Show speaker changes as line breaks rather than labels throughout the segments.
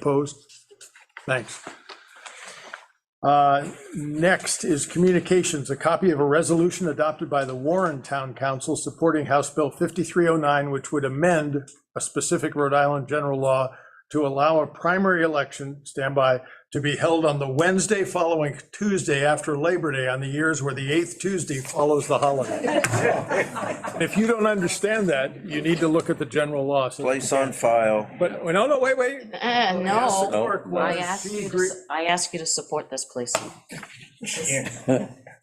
Opposed? Thanks. Uh, Next is communications, a copy of a resolution adopted by the Warren Town Council supporting House Bill 5309, which would amend a specific Rhode Island general law to allow a primary election, standby, to be held on the Wednesday following Tuesday after Labor Day on the years where the eighth Tuesday follows the holiday. If you don't understand that, you need to look at the general law. So-
Place on file.
But, no, no, wait, wait,
Uh, no,
Court
I
was-
ask
Oh, she
you, to
agree-
s- I ask you to support this, please.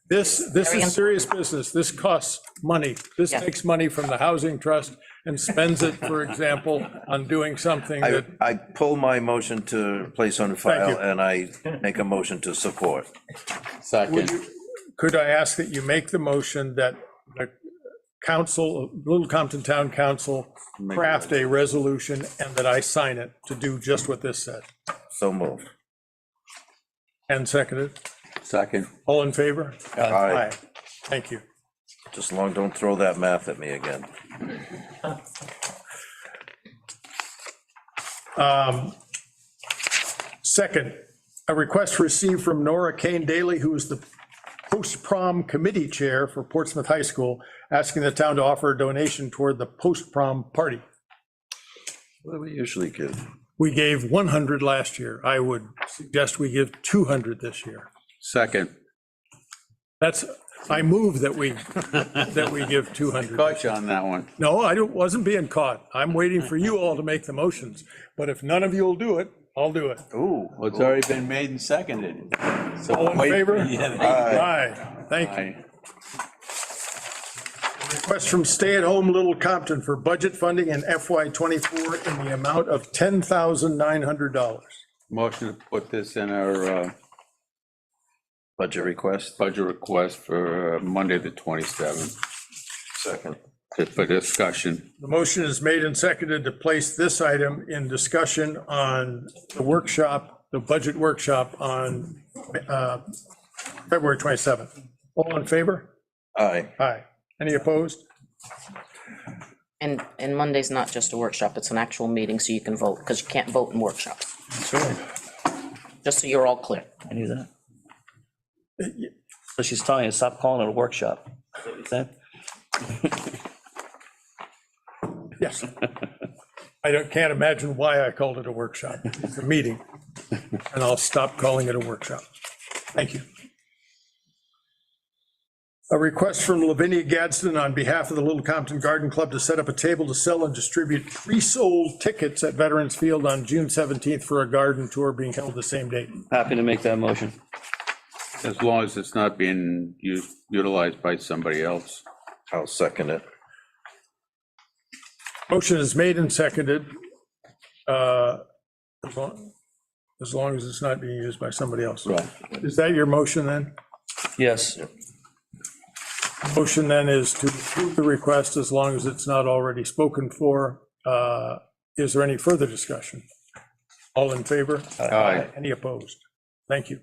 This, this
Very
is serious business. This costs money. This
Yeah.
takes money from the housing trust and spends it, for example, on doing something
I,
that,
I pull my motion to place on
you.
file and I make a motion to support.
Second,
could I ask that you make the motion that the council, Little Compton Town Council craft a resolution and that I sign it to do just what this said?
So moved.
And seconded.
second.
All in favor?
Aye.
Thank you.
Just long, don't throw that math at me again.
Second, a request received from Nora Kane Daly, who is the post-prom committee chair for Portsmouth High School, asking the town to offer a donation toward the post-prom party.
What do we usually give?
We gave 100 last year. I would suggest we give 200 this year.
Second.
That's, I move that we, that we give 200.
Caught you on that one.
No, I don't- wasn't being caught. I'm waiting for you all to make the motions. But if none of you will do it, I'll do it.
Ooh.
Well, it's already been made and seconded. So
All in
wait-
favor?
Yeah,
Aye. Thank you.
aye.
Request from stay-at-home Little Compton for budget funding in FY '24 in the amount of $10,900.
Motion to put this in our uh,
Budget request?
budget request for uh, Monday, the 27th,
Second.
to- for discussion.
The motion is made and seconded to place this item in discussion on the workshop, the budget workshop on uh, February 27th. All in favor?
Aye.
Aye. Any opposed?
And, and Monday's not just a workshop, it's an actual meeting, so you can vote, because you can't vote in workshops. Just so you're all clear.
I knew that. So she's telling you, stop calling it a workshop. Is that what you said?
Yes. I don't, can't imagine why I called it a workshop. It's a meeting, and I'll stop calling it a workshop. Thank you. A request from Lavinia Gadsden on behalf of the Little Compton Garden Club to set up a table to sell and distribute pre-sold tickets at Veterans Field on June 17th for a garden tour being held the same date.
Happy to make that motion.
As long as it's not being u- utilized by somebody else.
I'll second it.
Motion is made and seconded. uh, As long as long as it's not being used by somebody else.
Right.
Is that your motion then?
Yes,
Motion then is to approve the request as long as it's not already spoken for. Uh, Is there any further discussion? All in favor?
Aye.
Any opposed? Thank you.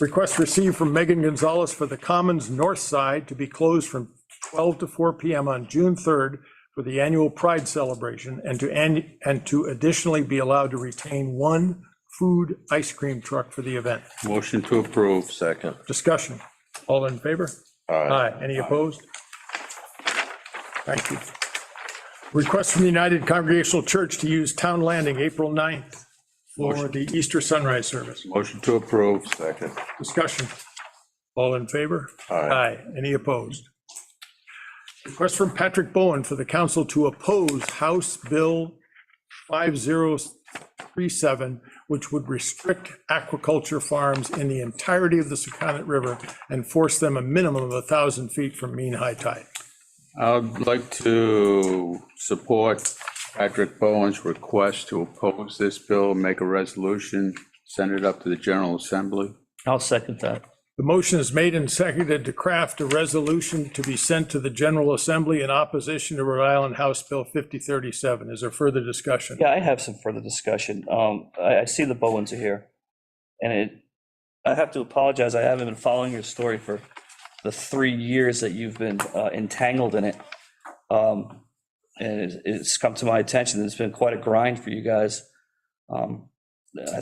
Request received from Megan Gonzalez for the Commons North Side to be closed from 12 to 4 PM on June 3rd for the annual Pride celebration and to, and and to additionally be allowed to retain one food ice cream truck for the event.
Motion to approve.
Second.
Discussion. All in favor?
Aye.
Any opposed? Thank you. Request from the United Congregational Church to use Town Landing, April 9th, for the Easter sunrise service.
Motion to approve.
Second.
Discussion. All in favor?
Aye.
Any opposed? Request from Patrick Bowen for the council to oppose House Bill 5037, which would restrict aquaculture farms in the entirety of the Secundit River and force them a minimum of 1,000 feet from mean high tide.
I'd like to support Patrick Bowen's request to oppose this bill, make a resolution, send it up to the General Assembly.
I'll second that.
The motion is made and seconded to craft a resolution to be sent to the General Assembly in opposition to Rhode Island House Bill 5037. Is there further discussion?
Yeah, I have some further discussion. Um, I, I see the Bowens are here. And it, I have to apologize, I haven't been following your story for the three years that you've been uh, entangled in it. Um, and it's, it's come to my attention, that it's been quite a grind for you guys. Um, I